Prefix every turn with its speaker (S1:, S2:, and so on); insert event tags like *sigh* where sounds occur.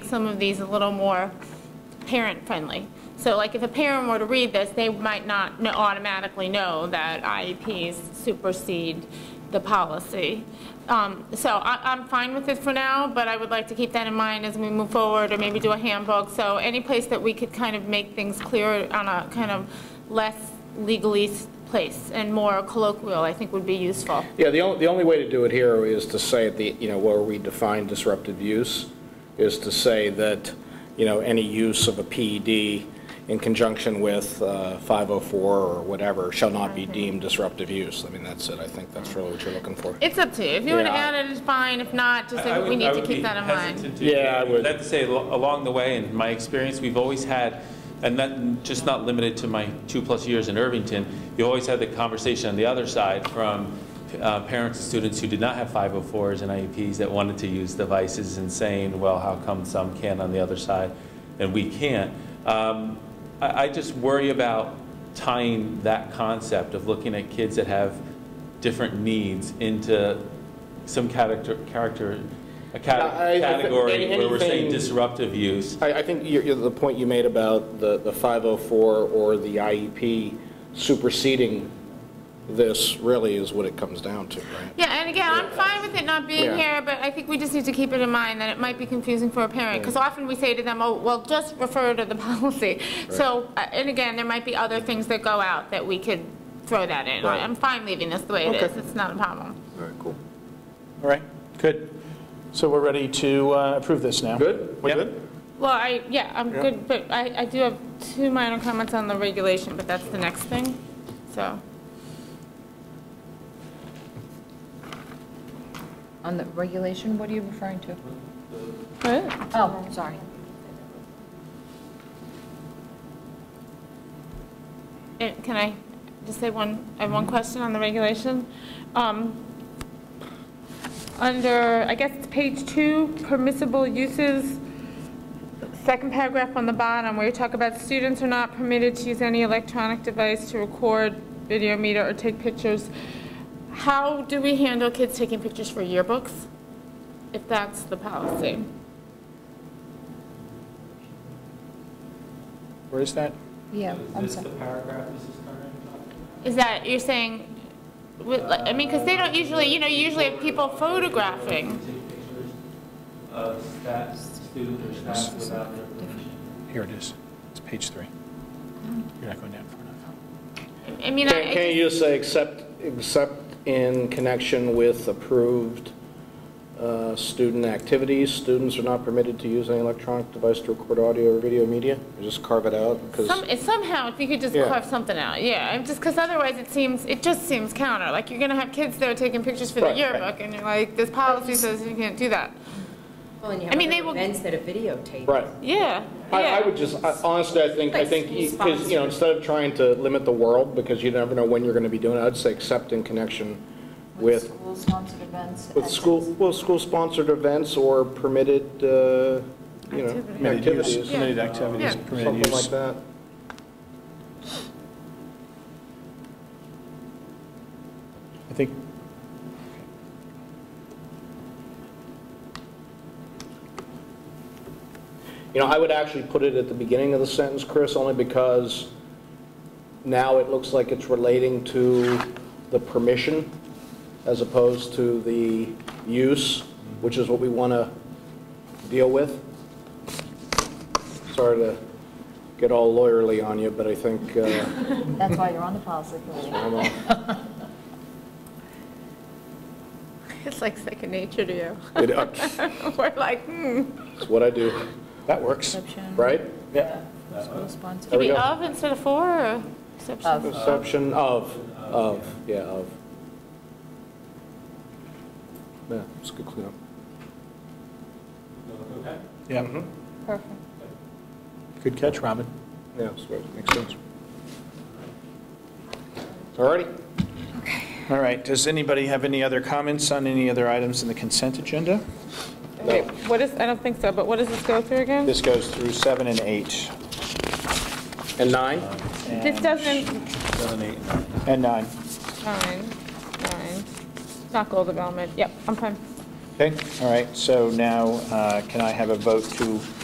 S1: make some of these a little more parent-friendly. So like if a parent were to read this, they might not kn- automatically know that IEPs supersede the policy. Um, So I- I'm fine with it for now, but I would like to keep that in mind as we move forward or maybe do a handbook. So any place that we could kind of make things clearer on a kind of less legally s- place and more colloquial, I think would be useful.
S2: Yeah, the only, the only way to do it here is to say at the, you know, where we define disruptive use, is to say that, you know, any use of a PED in conjunction with uh, 504 or whatever shall not be deemed disruptive use. I mean, that's it, I think that's really what you're looking for.
S1: It's up to you. If you want to
S2: Yeah.
S1: add it, it's fine. If not, just
S3: I- I
S1: we
S3: would-
S1: need
S3: I
S1: to
S3: would
S1: keep
S3: be
S1: that in mind.
S3: hesitant to-
S2: Yeah, I would.
S3: I'd have to say, al- along the way, in my experience, we've always had, and not, just not limited to my two-plus years in Irvington, you always had the conversation on the other side from uh, parents and students who did not have 504s and IEPs that wanted to use devices and saying, well, how come some can on the other side and we can't? Um, I I just worry about tying that concept of looking at kids that have different needs into some character, character, a cate-
S2: I- I think
S3: category where we're saying
S2: anything-
S3: disruptive use.
S2: I, I think you're- you're- the point you made about the, the 504 or the IEP superseding this really is what it comes down to, right?
S1: Yeah, and again, I'm fine with it not being
S2: Yeah.
S1: here, but I think we just need to keep it in mind that it might be confusing for a parent, because often we say to them, oh, well, just refer to the *laughs* policy. So, uh, and again, there might be other things that go out that we could throw that in.
S2: Right.
S1: I'm fine leaving this the way it
S4: Okay.
S1: is, it's not a problem.
S2: All right, cool.
S4: All right, good. So we're ready to uh, approve this now?
S2: Good? We
S4: Yep.
S2: good?
S1: Well, I, yeah, I'm good, but I, I do have two minor comments on the regulation, but that's the next thing, so.
S5: On the regulation, what are you referring to?
S1: What?
S5: Oh, sorry.
S1: Eh, Can I just say one, I have one question on the regulation? Um, Under, I guess it's page two, permissible uses, second paragraph on the bottom, where you talk about students are not permitted to use any electronic device to record, video meter, or take pictures. How do we handle kids taking pictures for yearbooks, if that's the policy?
S4: Where is that?
S5: Yeah, I'm sorry.
S3: paragraph Mrs. Turner talking
S1: Is that, you're saying, with- like, I mean, because they don't usually, you know, you usually have people photographing.
S3: Take pictures of staff, student or staff without their permission.
S4: Here it is. It's page three. You're not going down far enough.
S1: I mean, I- I
S2: Can can you just say, except, except in connection with approved uh, student activities, students are not permitted to use any electronic device to record audio or video media? Or Just carve it out, because,
S1: Some- if Somehow, if you could just
S2: Yeah.
S1: carve something out, yeah, I'm just, because otherwise it seems, it just seems counter, like you're going to have kids there taking pictures for the
S2: Right, right.
S1: yearbook, and you're like, this policy says you can't do that.
S6: Well, and you
S1: I mean, they
S6: have
S1: will-
S6: other events that are videotaped.
S2: right.
S1: Yeah,
S2: I, I
S1: yeah.
S2: would just, I- honestly, I think, I
S6: Like
S2: think,
S6: school
S2: because, you know, instead of trying to limit the world, because you never know when you're going to be doing it, I'd say except in connection with,
S5: School-sponsored events.
S2: with school, well, school-sponsored events or permitted, uh, you know,
S4: Permitted use,
S2: activities, Um,
S4: permitted activities,
S1: Yeah.
S4: permitted
S2: something like
S4: use.
S2: that.
S4: I think,
S2: You know, I would actually put it at the beginning of the sentence, Chris, only because now it looks like it's relating to the permission as opposed to the use, which is what we want to deal with. Sorry to get all lawyerly on you, but I think, uh,
S5: That's why you're on the policy committee.
S2: I'm all-
S1: It's like second nature to you. *laughs*
S2: it- uh,
S1: We're like, hmm.
S2: it's what I do,
S4: that works.
S5: Exception,
S2: right?
S4: Yeah.
S2: There
S5: school-sponsored.
S2: we
S1: Maybe
S2: go.
S1: of instead of for, or exception?
S5: Of.
S2: Perception of, of, yeah, of. Yeah, it's a good cleanup.
S3: Okay.
S4: Yeah,
S2: Mm-hmm.
S5: Perfect.
S4: good catch, Robin.
S2: Yeah, so it makes sense. All righty.
S4: All right, does anybody have any other comments on any other items in the consent agenda?
S1: Wait, What is, I don't think so, but what does this go through again?
S4: This goes through seven and eight.
S2: And nine?
S1: This doesn't,
S3: Seven, eight, nine.
S4: And nine.
S1: fine, fine, not goal development, yep, I'm fine.
S4: Okay, all right, so now uh, can I have a vote to